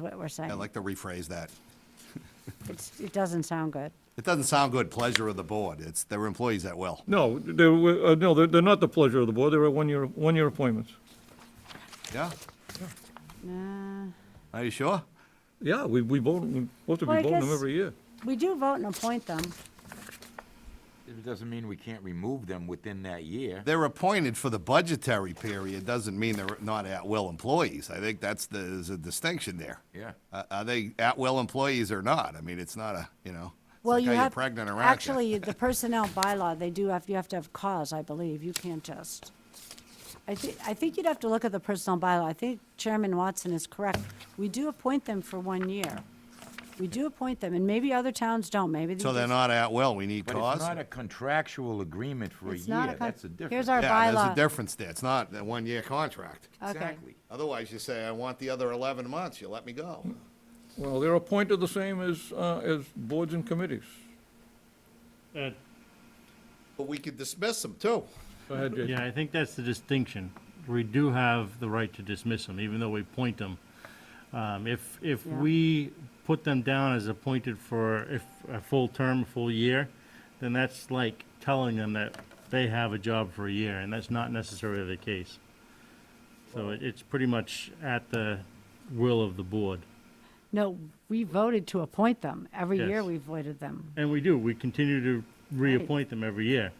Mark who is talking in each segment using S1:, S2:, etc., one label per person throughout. S1: what we're saying.
S2: I'd like to rephrase that.
S1: It's, it doesn't sound good.
S2: It doesn't sound good, pleasure of the board. It's, they're employees at will.
S3: No, they were, uh, no, they're, they're not the pleasure of the board, they were one-year, one-year appointments.
S2: Yeah?
S1: Nah.
S2: Are you sure?
S3: Yeah, we, we vote, we're supposed to
S1: Well,
S3: be
S1: I
S3: voting them
S1: guess-
S3: every year.
S1: We do vote and appoint them.
S4: It doesn't mean we can't remove them within that year.
S2: They're appointed for the budgetary period, doesn't mean they're not at-will employees. I think that's the, there's a distinction there.
S4: Yeah.
S2: Uh, Are they at-will employees or not? I mean, it's not a, you know, it's
S1: Well,
S2: like
S1: you
S2: how
S1: have.
S2: you're pregnant or active.
S1: Actually, the personnel bylaw, they do have, you have to have cause, I believe. You can't just. I thi, I think you'd have to look at the personnel bylaw. I think Chairman Watson is correct. We do appoint them for one year. We do appoint them, and maybe other towns don't, maybe. they
S2: So they're
S1: just-
S2: not at-will, we need
S4: But it's
S2: cause?
S4: not a contractual agreement for a
S1: It's not
S4: year,
S1: con-
S4: that's a difference.
S1: Here's our
S2: Yeah, there's a
S1: bylaw. Uh,
S2: difference there. It's not a one-year contract.
S1: Okay.
S4: Exactly.
S2: Otherwise, you say, I want the other 11 months, you let me go.
S3: Well, they're appointed the same as, uh, as boards and committees.
S5: Uh,
S2: But we could dismiss them, too.
S3: Go ahead, Jason.
S5: Yeah, I think that's the distinction. We do have the right to dismiss them, even though we appoint them. Um, If, if
S1: Yeah.
S5: we put them down as appointed for if- a full term, a full year, then that's like telling them that they have a job for a year, and that's not necessarily the case. So it- it's pretty much at the will of the board.
S1: No, we voted to appoint them. Every year
S5: Yes.
S1: we voted them.
S5: And we do, we continue to reappoint them every year.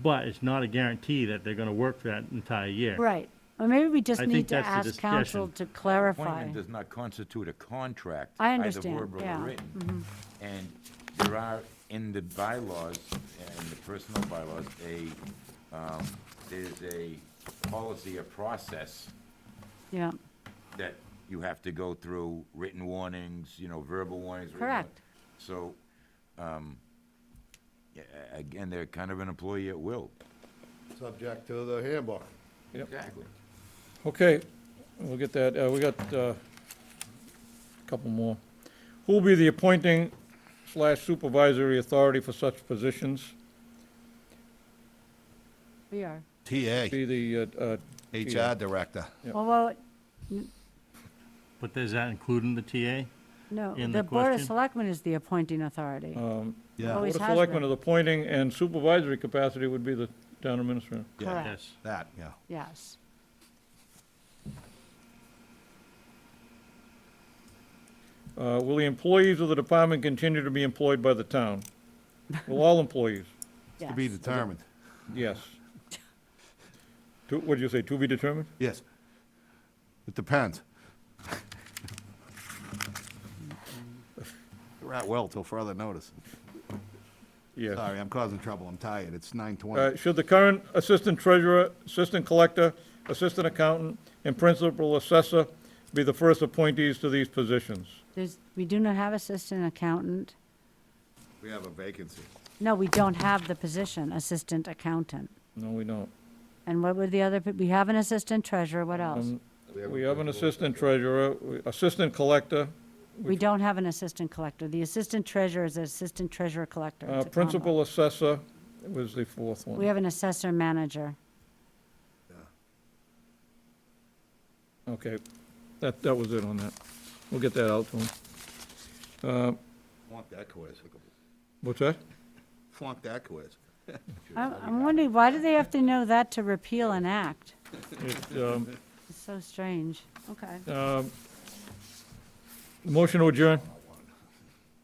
S5: But it's not a guarantee that they're going to work for that entire year.
S1: Right. Or maybe we just
S5: I
S1: need
S5: think
S1: to
S5: that's the
S1: ask council to
S5: discussion.
S1: clarify.
S4: Appointment does not constitute a contract.
S1: I
S4: Either
S1: understand,
S4: verbal
S1: yeah, Mm-hmm.
S4: or written. And there are, in the bylaws, in the personal bylaws, a, um, there's a policy or process
S1: Yeah,
S4: that you have to go through, written warnings, you know, verbal warnings. written warnings.
S1: Correct.
S4: So, um, yeah, a- again, they're kind of an employee at will.
S2: Subject to the handbook.
S4: Exactly.
S3: Okay, we'll get that, uh, we got, uh, a couple more. Who will be the appointing slash supervisory authority for such positions?
S1: we are.
S2: TA,
S3: Be the, uh, uh,
S2: HR director.
S3: Yeah.
S1: Well, well,
S5: But does that include in the TA?
S1: no,
S5: In
S1: the
S5: the
S1: Board of
S5: question?
S1: Selectmen is the appointing authority.
S2: Oh, Yeah,
S1: Always
S3: Board of
S1: has
S3: Selectmen
S1: been.
S3: is appointing, and supervisory capacity would be the town administrator.
S2: Yeah.
S1: Correct,
S5: Yes.
S2: that, yeah.
S1: yes.
S3: Uh, Will the employees of the department continue to be employed by the town? Will all employees?
S2: To be
S1: Yes.
S2: determined.
S3: Yes. To- What did you say, to be determined?
S2: Yes. It depends. They're at will till further notice.
S3: Yes.
S2: Sorry, I'm causing trouble. I'm tired. It's
S3: Uh,
S2: 9:20.
S3: Should the current assistant treasurer, assistant collector, assistant accountant, and principal assessor be the first appointees to these positions?
S1: There's, we do not have assistant accountant.
S2: We have a vacancy.
S1: No, we don't have the position, assistant accountant.
S3: No, we don't.
S1: And what would the other, pe- we have an assistant treasurer, what else?
S3: We have an assistant treasurer, we- assistant collector, uh,
S1: We don't have an assistant collector. The assistant treasurer is assistant treasurer collector.
S3: uh,
S1: It's a combo.
S3: principal assessor was the fourth
S1: We
S3: one.
S1: have an assessor manager.
S3: Okay, that, that was it on that. We'll get that out to him.
S2: Flunk that quiz.
S3: What's that?
S2: Flunk that quiz.
S1: I'm, I'm wondering, why do they have to know that to repeal an act?
S3: It, um,
S1: It's so strange. Okay.
S3: Um, Motion to adjourn.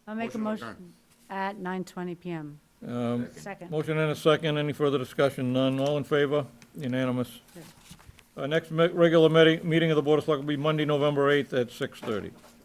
S1: I'll make a motion at 9:20 PM.
S3: Um,
S1: Second.
S3: Motion and a second. Any further discussion? None. All in favor? Unanimous. Uh, Our next me- regular medi- meeting of the Board of Selectmen will be Monday, November 8th at 6:30.